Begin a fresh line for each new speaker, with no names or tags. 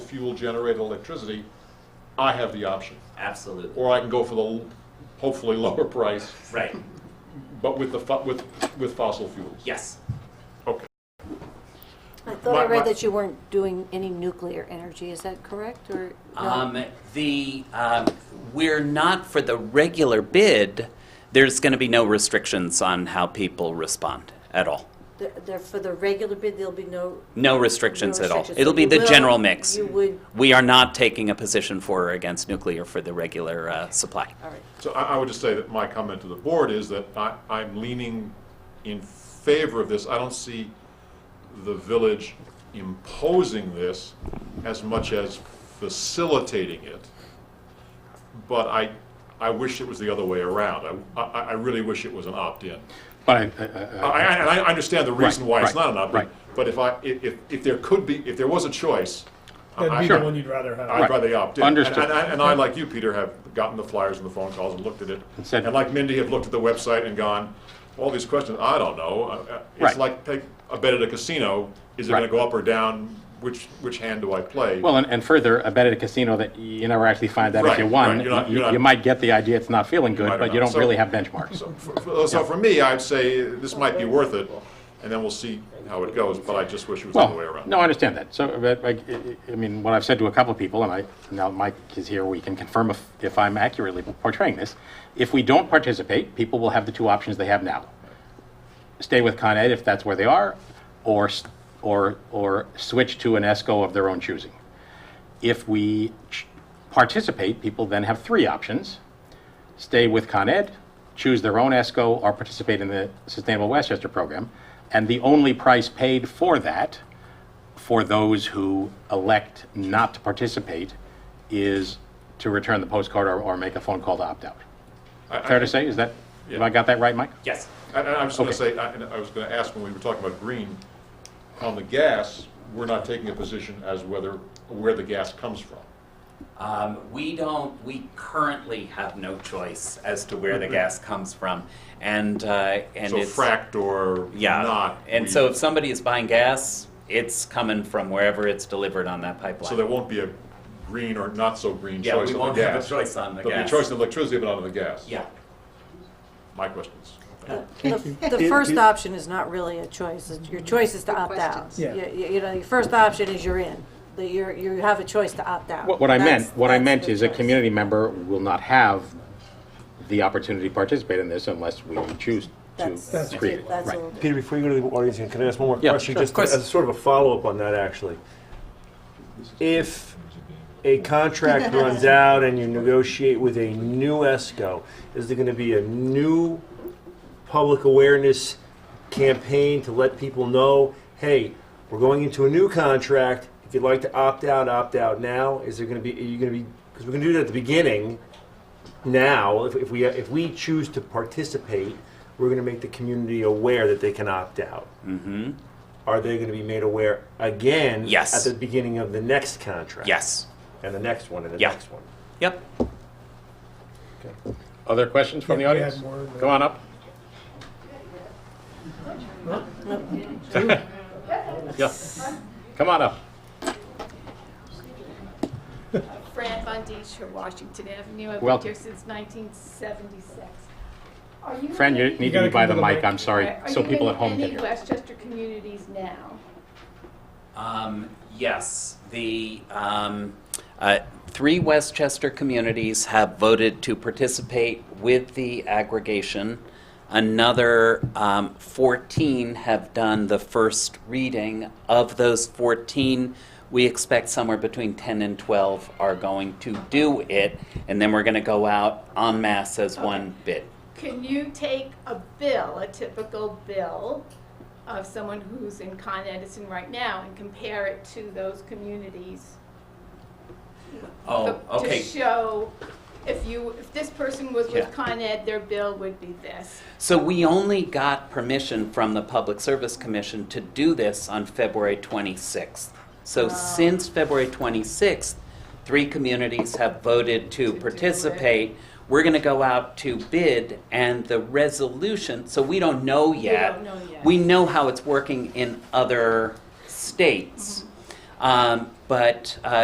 fuel generated electricity, I have the option.
Absolutely.
Or I can go for the l- hopefully lower price,
Right.
but with the, fo- with, with fossil fuels.
Yes.
Okay.
I thought
My-
I
my-
read that you weren't doing any nuclear energy, is that correct, or? no?
Um, the um, we're not for the regular bid. There's going to be no restrictions on how people respond at all.
There- there- For the regular bid, there'll be no,
No restrictions
No
at all.
restrictions.
It'll be
You
the
will-
general mix.
you would-
We are not taking a position for or against nuclear for the regular uh, supply.
all right.
So I, I would just say that my comment to the board is that I, I'm leaning in favor of this. I don't see the village imposing this as much as facilitating it. But I, I wish it was the other way around. I, I, I really wish it was an opt-in.
I, I-
I,
I-
I, and I understand the reason why it's
right,
not an opt-in,
right.
but if I, if, if- if there could be, if there was a choice, I-
That'd be
Uh, I-
the one you'd rather have.
I'd
Right.
rather opt in.
Understood.
And- And I, and I, like you, Peter, have gotten the flyers and the phone calls and looked at it.
And said-
And like Mindy, have looked at the website and gone, all these questions, I don't know. Uh, uh, It's
Right.
like, take a bet at a casino, is it gonna
Right.
go up or down? Which, which hand do I play?
well, and, and further, I bet at a casino that you never actually find out if you
Right,
won.
right, you're not-
You-
you're not-
You might get the idea it's not feeling
might or
good, but you
not.
don't really
So-
have benchmarks.
So for- for so for me, I'd say this might be worth it, and then we'll see how it goes, but I just wish it was the other way
Well,
around.
no, I understand that. So, but, like, I- I I mean, what I've said to a couple of people, and I, now Mike is here, we can confirm if, if I'm accurately portraying this. If we don't participate, people will have the two options they have now. Stay with Con Ed if that's where they are, or, s- or, or switch to an E ESCO of their own choosing. If we ch- participate, people then have three options. Stay with Con Ed, choose their own ESCO, or participate in the Sustainable Westchester program. And the only price paid for that for those who elect not to participate is to return the postcard or, or make a phone call to opt out.
I- I-
Fair to say, is that, have I got that right, Mike?
Yes.
And and I was going to
Okay.
say, I and I was going to ask when we were talking about green, on the gas, we're not taking a position as whether, where the gas comes from.
Um, we don't, we currently have no choice as to where the gas comes from. And, uh, and
Mm-hmm. So
it's.
fracked or
yeah.
not.
And
we-
so if somebody is buying gas, it's coming from wherever it's delivered on that pipeline.
So there won't be a green or not so green
Yeah,
choice
we
on
won't
the
have a
gas.
choice on the
There'll be a
gas.
choice in electricity, but not on the gas.
Yeah.
My questions.
Uh, The the first option is not really a choice, It's- your choice is to opt out.
questions.
Yeah.
You- You you know, your first option is you're in, that you're, you have a choice to opt out.
What, what I meant,
That's-
what I
that's
meant
the
is a
choice.
community member will not have the opportunity to participate in this unless we choose
That's,
to create it.
that's a
Right.
little bit.
Peter, before you go to the audience, can I ask one more
Yeah,
question?
sure, of
Just
course.
as sort of a follow-up on that, actually. If a contract runs out and you negotiate with a new ESCO, is there going to be a new public awareness campaign to let people know, hey, we're going into a new contract. If you'd like to opt out, opt out now. Is there going to be? Are you going to be? Because we're going to do that at the beginning. Now, if, if we if we choose to participate, we're going to make the community aware that they can opt out. Mm-hmm. Are they going to be made aware again?
Yes.
At the beginning of the next contract.
Yes.
And the next one and the
Yeah.
next one.
Yep.
Other questions from the
Yeah, we had
audience?
more, but-
Come on up. Yeah. Come on up.
Fran Von Deesch from Washington Avenue. I've been
Welcome.
here since 1976. Are you
Fran, you
in-
need
gotta
to be by
come to
the
the
mic,
mic.
I'm sorry,
Are
so
you
people
in
at home can
any
hear.
Westchester communities now?
Um, yes, the um, uh, three Westchester communities have voted to participate with the aggregation. Another um, 14 have done the first reading. Of those 14, we expect somewhere between 10 and 12 are going to do it, and then we're going to go out en masse as one bid.
Can you take a bill, a typical bill of someone who's in Con Edison right now and compare it to those communities?
Oh, okay.
To show if you, if this person was
Yeah.
with Con Ed, their bill would be this.
So we only got permission from the Public Service Commission to do this on February 26th. So since February 26th, three communities have voted to
do it.
participate. We're going to go out to bid and the resolution, so we don't know yet.
don't know yet.
We know
Mm-hmm.
how it's working in other states. Um, But uh,